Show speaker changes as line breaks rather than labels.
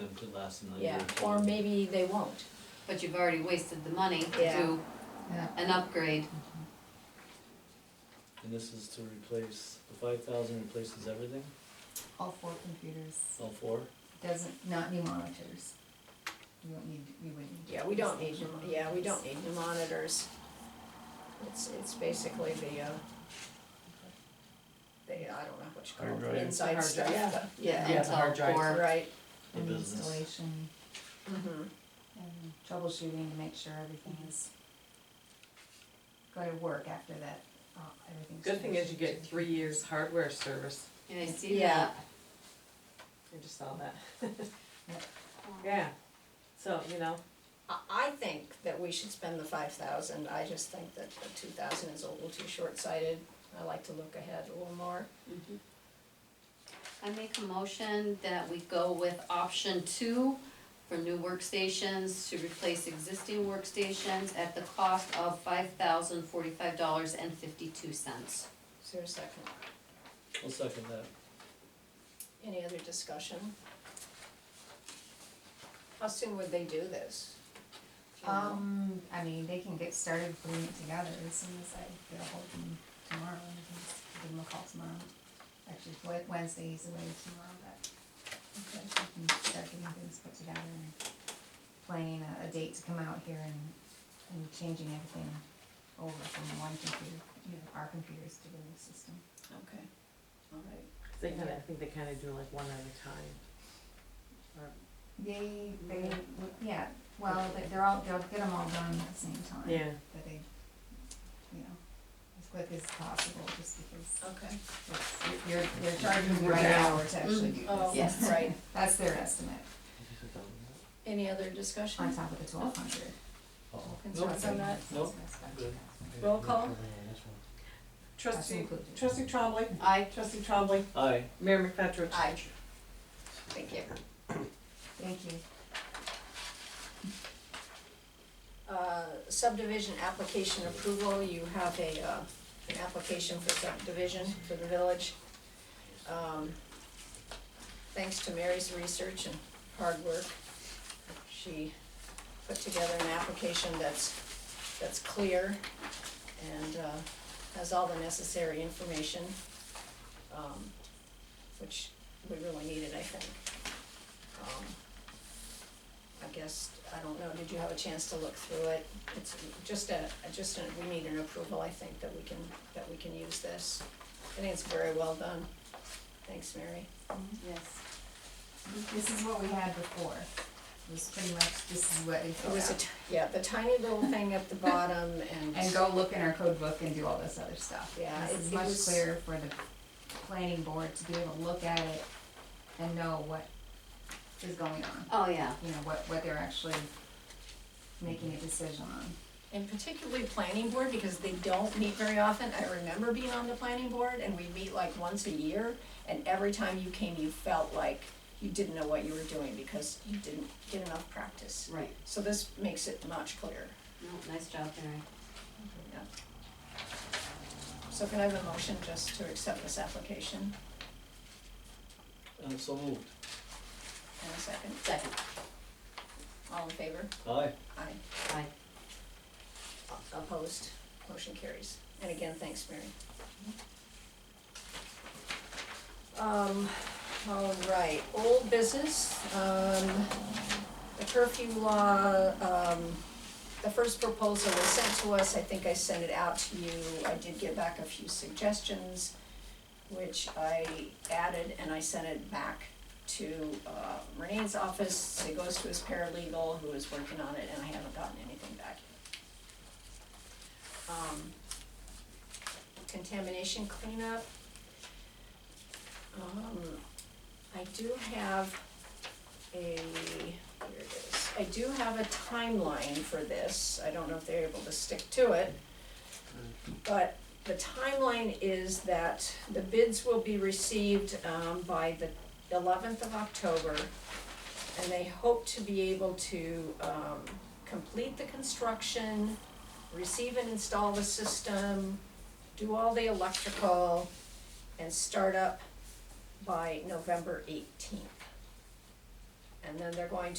it to last another year
yeah,
or two.
or maybe they won't.
but you've already wasted the money
Yeah.
to
Yeah.
an upgrade.
And this is to replace, the five thousand replaces everything,
All four computers,
all four?
doesn't, not new monitors. You don't need, you wouldn't need.
Yeah, we don't need, new- yeah, we don't need new monitors. It's, it's basically the, uh, the, I don't know what you
Hard
call it,
drive.
the inside
Hard
stuff,
drive.
but,
Yeah,
And
the
so
hard drive.
for-
right,
The
and
business.
installation
mm-hmm.
and troubleshooting to make sure everything is going to work after that, uh, everything's.
Good thing is you get
troubleshooted.
three years hardware service,
And I see
Yeah.
that.
I just saw that. Yeah, so, you know,
I, I think that we should spend the five thousand, I just think that the two thousand is a little too short-sighted. I like to look ahead a little more.
Mhm. I make a motion that we go with option two for new workstations to replace existing workstations at the cost of five thousand forty-five dollars and fifty-two cents.
Is there a second?
I'll second that.
Any other discussion? How soon would they do this? Do you know?
Um, I mean, they can get started putting it together as soon as I get ahold of them tomorrow, I can just give them a call tomorrow. Actually, Wed- Wednesday is away tomorrow, but
Okay.
I can start getting things put together and planning a, a date to come out here and, and changing everything over from one computer, you know, our computers to the new system.
Okay, all right.
they kinda, I think they kinda do like one at a time.
They, they, yeah, well, they- they're all, they'll get them all done at the same time.
Yeah,
But they, you know, as quick as possible, just because
Okay.
it's- you're, you're charging the right hour to actually do
Oh,
Mm-hmm.
this.
Yes.
right.
That's their estimate,
Any other discussion?
on top of the twelve hundred.
Uh-oh.
Concerns on that?
Nope.
Roll call.
That's
trustee,
included.
trustee Trombley,
Aye.
trustee Trombley,
Aye.
Mayor McFetrich.
Aye. Thank you.
Thank you.
Uh, subdivision application approval, you have a, uh, an application for subdivision for the village. Um, Thanks to Mary's research and hard work, she put together an application that's, that's clear and, uh, has all the necessary information, um, which we really needed, I think. Um, I guess, I don't know, did you have a chance to look through it? It's just a, just a, we need an approval, I think, that we can, that we can use this. I think it's very well done. Thanks, Mary.
Yes.
This is what we had before, it was pretty much, this is what they
It
filled
was a,
out.
t- yeah, the tiny little thing at the bottom and.
And go look in our code book and do all this other stuff.
Yeah,
This
it-
is
it
much
was-
clearer for the planning board to be able to look at it and know what is going on.
Oh, yeah.
you know, what, what they're actually making a decision on.
And particularly planning board, because they don't meet very often. I remember being on the planning board and we meet like once a year. And every time you came, you felt like you didn't know what you were doing because you didn't get enough practice.
Right.
So this makes it much clearer.
No, nice job, Mary.
Yeah. So can I have a motion just to accept this application
And so moved.
and a second?
Second.
All in favor?
Aye.
Aye.
Aye.
Opposed? Motion carries. And again, thanks, Mary. Um, all right, old business, um, the curfew law, um, the first proposal was sent to us, I think I sent it out to you. I did get back a few suggestions, which I added and I sent it back to, uh, Renee's office. It goes to his paralegal who is working on it and I haven't gotten anything back yet um, contamination cleanup. Um, I do have a, here it is, I do have a timeline for this, I don't know if they're able to stick to it. But the timeline is that the bids will be received, um, by the eleventh of October. And they hope to be able to, um, complete the construction, receive and install the system, do all the electrical, and start up by November eighteenth. and then they're going to.